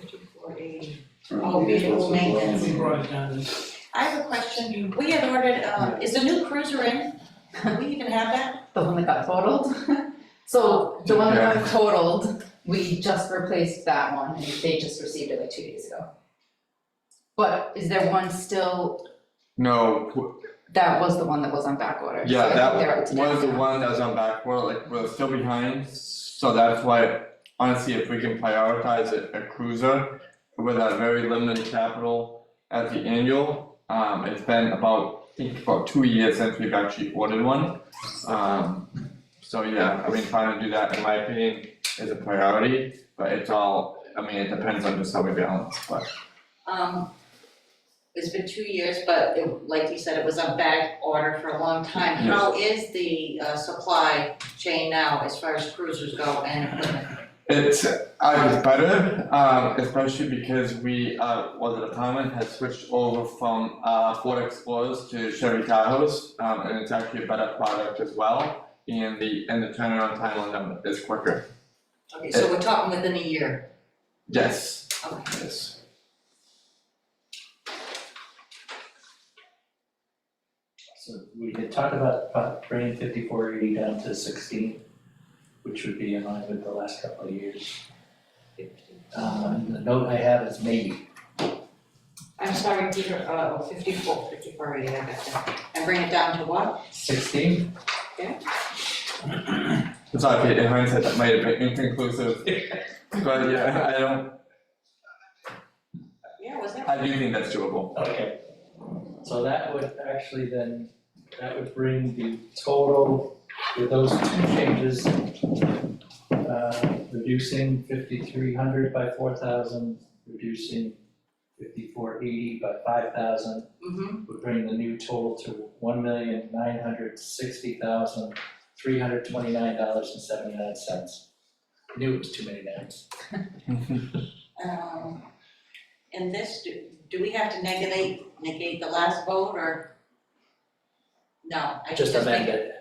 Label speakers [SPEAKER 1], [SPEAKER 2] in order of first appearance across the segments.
[SPEAKER 1] fifty-four eighty.
[SPEAKER 2] Oh, vehicle maintenance.
[SPEAKER 3] We brought it down to
[SPEAKER 2] I have a question, we had ordered, um, is the new cruiser in? Do we even have that?
[SPEAKER 4] The one that got totaled? So the one that got totaled, we just replaced that one and they just received it like two days ago. But is there one still,
[SPEAKER 5] No, w-
[SPEAKER 4] that was the one that was on back order, so I
[SPEAKER 5] yeah,
[SPEAKER 4] think they're up
[SPEAKER 5] that
[SPEAKER 4] to
[SPEAKER 5] was
[SPEAKER 4] date
[SPEAKER 5] the
[SPEAKER 4] now.
[SPEAKER 5] one that was on back order, like we're still behind, so that's why honestly, if we can prioritize a a cruiser with our very limited capital at the annual, um it's been about, I think about two years since we've actually ordered one. Um so yeah, I mean, trying to do that in my opinion is a priority, but it's all, I mean, it depends on just how we balance, but
[SPEAKER 2] Um, it's been two years, but it, like you said, it was on back order for a long time.
[SPEAKER 5] Yes.
[SPEAKER 2] How is the, uh, supply chain now as far as cruisers go and equipment?
[SPEAKER 5] It's, uh, it's better, um, especially because we, uh, well, the department has switched over from, uh, Ford Explorers to Chevy Tahoes. Um, and it's actually a better product as well, and the, and the turnaround time on them is quicker.
[SPEAKER 2] Okay, so we're talking within a year,
[SPEAKER 5] Yes,
[SPEAKER 2] okay.
[SPEAKER 5] yes.
[SPEAKER 3] So we had talked about about bringing fifty-four eighty down to sixteen, which would be in line with the last couple of years. Um, the note I have is maybe,
[SPEAKER 2] I'm sorry, Peter, uh, fifty-four, fifty-four, yeah, I got that. And bring it down to what?
[SPEAKER 3] sixteen?
[SPEAKER 5] It's okay, in hindsight, that might have been inconclusive, but yeah, I don't,
[SPEAKER 2] Yeah, was that?
[SPEAKER 5] I do think that's doable.
[SPEAKER 3] Okay. So that would actually then, that would bring the total with those two changes, uh, reducing fifty-three hundred by four thousand, reducing fifty-four eighty by five thousand,
[SPEAKER 2] Mm-hmm,
[SPEAKER 3] would bring the new total to one million nine hundred sixty thousand three hundred twenty-nine dollars and seventy-nine cents. Knew it was too many nines.
[SPEAKER 2] um, and this, do, do we have to negate, negate the last vote, or? No, I just
[SPEAKER 3] Just
[SPEAKER 2] think.
[SPEAKER 3] amend it.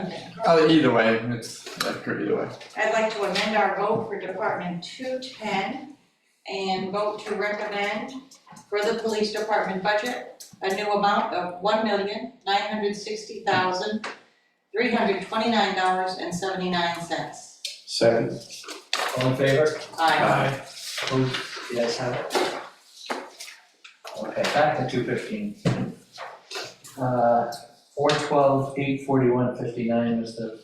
[SPEAKER 2] Okay.
[SPEAKER 5] Uh, either way, it's, that's good either way.
[SPEAKER 2] I'd like to amend our vote for Department two ten and vote to recommend for the police department budget, a new amount of one million nine hundred sixty thousand three hundred twenty-nine dollars and seventy-nine cents.
[SPEAKER 6] Second.
[SPEAKER 3] All in favor?
[SPEAKER 2] Aye.
[SPEAKER 3] Opposed? The ayes have it. Okay, back to two fifteen. Uh, four twelve, eight forty-one, fifty-nine was the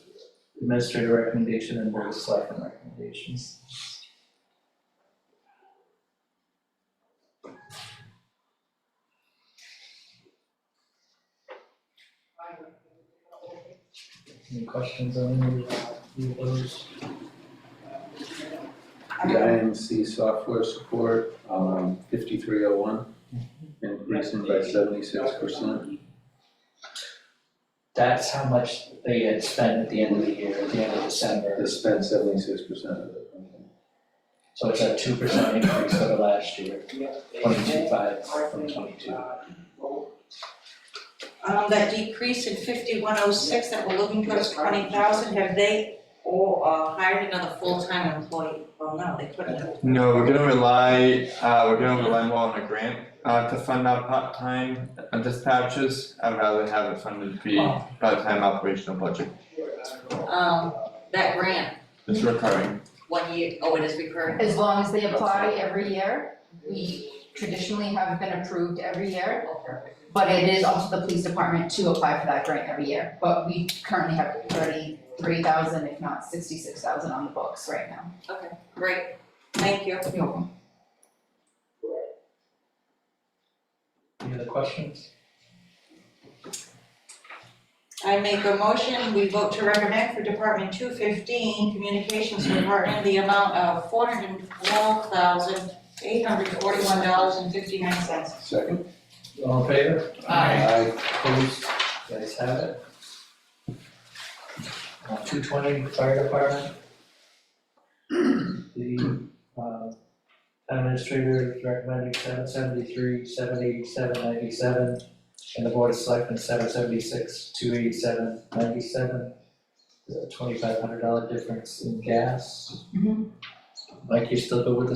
[SPEAKER 3] administrator recommendation and board of selectmen recommendations. Any questions on any of those?
[SPEAKER 6] The IMC software support, um, fifty-three oh one, increasing by seventy-six percent.
[SPEAKER 3] That's how much they had spent at the end of the year, at the end of December,
[SPEAKER 6] They spent seventy-six percent of it.
[SPEAKER 3] so it's a two percent increase over last year. Twenty-two five from twenty-two.
[SPEAKER 2] Um, that decrease in fifty-one oh six that we're looking towards twenty thousand, have they all, uh, hired another full-time employee? Well, no, they couldn't have.
[SPEAKER 5] No, we're gonna rely, uh, we're gonna rely more on a grant, uh, to fund our part-time dispatches. I'd rather have it funded be part-time operational budget.
[SPEAKER 2] Um, that grant,
[SPEAKER 5] It's recurring.
[SPEAKER 2] one year, oh, it is recurring.
[SPEAKER 4] As long as they apply every year, we traditionally have been approved every year.
[SPEAKER 2] Oh, perfect.
[SPEAKER 4] But it is up to the police department to apply for that grant every year, but we currently have thirty-three thousand, if not sixty-six thousand on the books right now.
[SPEAKER 2] Great, thank you.
[SPEAKER 4] You're welcome.
[SPEAKER 3] Any other questions?
[SPEAKER 2] I make a motion, we vote to recommend for Department two fifteen, Communications Department, the amount of four hundred and twelve thousand, eight hundred forty-one dollars and fifty-nine cents.
[SPEAKER 6] Second.
[SPEAKER 3] All in favor?
[SPEAKER 6] Aye.
[SPEAKER 3] Opposed? The ayes have it. Uh, Two twenty, fire department. The, uh, town administrator is recommending seven seventy-three, seven eighty-seven, ninety-seven. And the board of selectmen, seven seventy-six, two eighty-seven, ninety-seven. There's a twenty-five hundred dollar difference in gas. Mike, you still good with the